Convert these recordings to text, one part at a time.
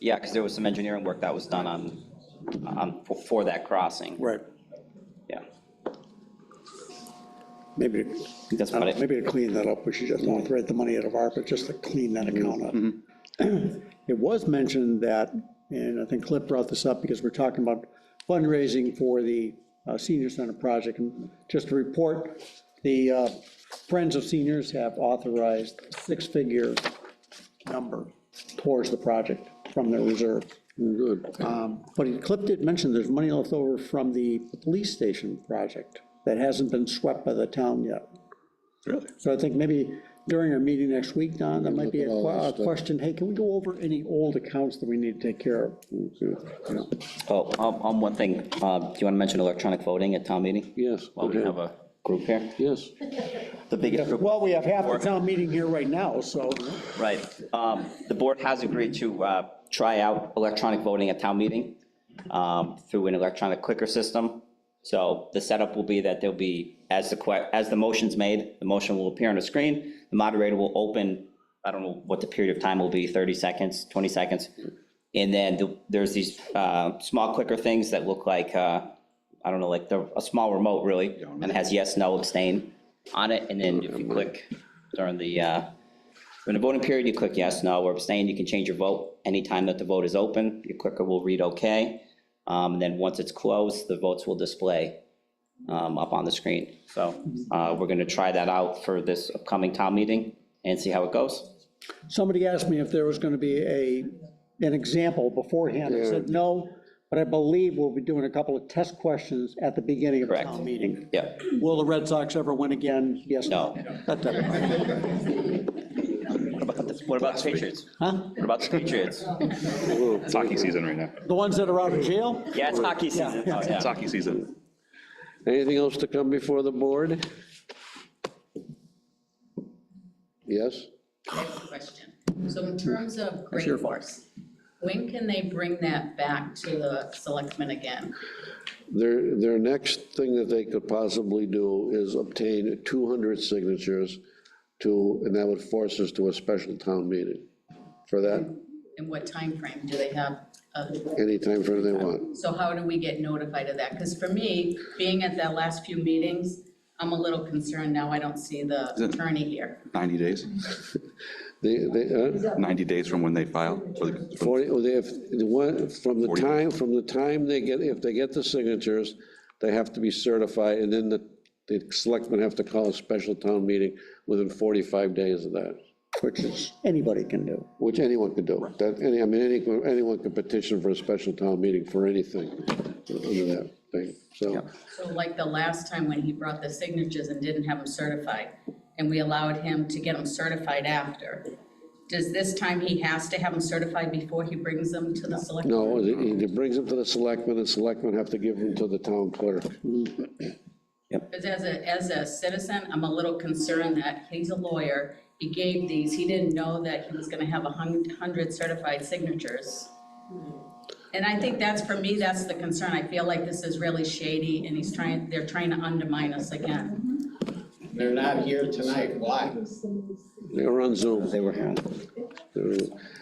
Yeah, because there was some engineering work that was done on, on, for- for that crossing, Right. yeah. Maybe, uh, That's about it. maybe to clean that up, we should just not thread the money out of ARPA, just to clean that Mm-hmm. account up. It was mentioned that, and I think Cliff brought this up because we're talking about fundraising for the uh, senior center project. And just to report, the uh, Friends of Seniors have authorized six-figure number towards the project from their reserve. Good. Um, But he- Cliff did mention there's money left over from the police station project that hasn't been swept by the town yet. Really? So I think maybe during our meeting next week, Don, that might be a Look at all que- a this stuff. question, hey, can we go over any old accounts that we need to take care of? You know, Oh, um, um, one thing, uh, do you want to mention electronic voting at town meeting? Yes. Well, we okay. have a group here, Yes. the biggest group. Well, we have half the town meeting here right now, so Right. Um, The board has agreed to uh, try out electronic voting at town meeting um, through an electronic clicker system. So the setup will be that there'll be, as the, que- as the motion's made, the motion will appear on the screen, the moderator will open, I don't know what the period of time will be, 30 seconds, 20 seconds. And then the- there's these uh, small clicker things that look like, uh, I don't know, like the- a small remote, really, and it has yes, no, abstain on it. And then if you click during the, uh, in the voting period, you click yes, no, or abstain, you can change your vote anytime that the vote is open, your clicker will read okay. Um, and then once it's closed, the votes will display, um, up on the screen. So, uh, we're gonna try that out for this upcoming town meeting and see how it goes. somebody asked me if there was going to be a, an example beforehand. I said, no, but I believe we'll be doing a couple of test questions at the beginning of the Correct. town meeting. Yeah, Will the Red Sox ever win again? Yes, no. That type of thing. what about, the- what about the Patriots? Huh? What about the Patriots? It's hockey season right now. The ones that are out of jail? Yeah, it's hockey season, oh, yeah. It's hockey season. Anything else to come before the board? Yes? I have a question. So in terms of Green Force, when can they bring that back to the selectmen again? Their, their next thing that they could possibly do is obtain 200 signatures to, and that would force us to a special town meeting for that, And what time frame do they have? uh, any time frame they want. So how do we get notified of that? Because for me, being at that last few meetings, I'm a little concerned now I don't see the attorney here. 90 days, They, they, uh, 90 days from when they file. for the- for- 40, well, they have- the one- from the time, from the time they get, if they get the signatures, they have to be certified, and then the, the selectmen have to call a special town meeting within 45 days of that. Which is, anybody can do. Which anyone could do. That, any, I mean, any, anyone could petition for a special town meeting for anything under that thing, so. So like the last time when he brought the signatures and didn't have them certified, and we allowed him to get them certified after. Does this time he has to have them certified before he brings them to the selectmen? No, it, it brings them to the selectmen, and selectmen have to give them to the town clerk. Because as a, as a citizen, I'm a little concerned that he's a lawyer, he gave these, he didn't know that he was gonna have a hun- hundred certified signatures. And I think that's, for me, that's the concern, I feel like this is really shady, and he's trying, they're trying to undermine us again. They're not here tonight, why? They were on Zoom. They were here. They're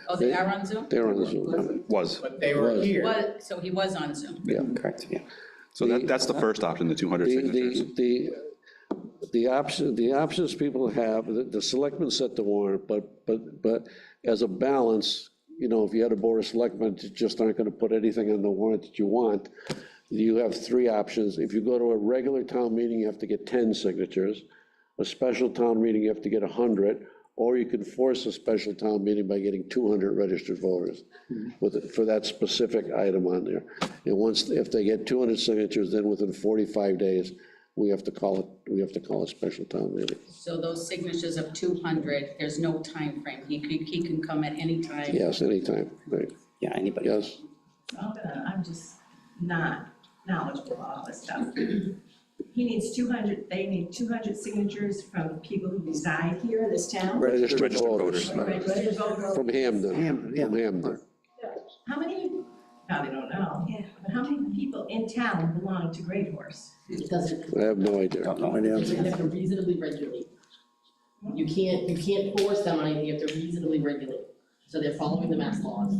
Oh, they are on Zoom? they're on Zoom. Was. But they were here. What, so he was on Zoom? Correct, yeah. So that, that's the first option, the 200 The, signatures. the, the, the option, the options people have, the, the selectmen set the warrant, but, but, but as a balance, you know, if you had a board of selectmen that just aren't gonna put anything on the warrant that you want, you have three options. If you go to a regular town meeting, you have to get ten signatures. A special town meeting, you have to get hundred, or you can force a special town meeting by getting two hundred registered voters with, for that specific item on there. And once, if they get two hundred signatures, then within forty-five days, we have to call it, we have to call a special town meeting. So those signatures of two hundred, there's no time frame. he could, he can come at any time. Yes, anytime, right, Yeah, anybody? yes. I'm gonna, I'm just not knowledgeable about all this stuff. He needs two hundred, they need two hundred signatures from people who reside here in this town. Registered Registered voters. voters. Registered voters. From Hamden, Hamden, yeah. from Hamden. How many, probably don't know, but how many people in town belong to Great Horse? It doesn't, I have no idea. Don't know. it doesn't have to reasonably regulate. You can't, you can't force them on anything, you have to reasonably regulate. So they're following the mass laws.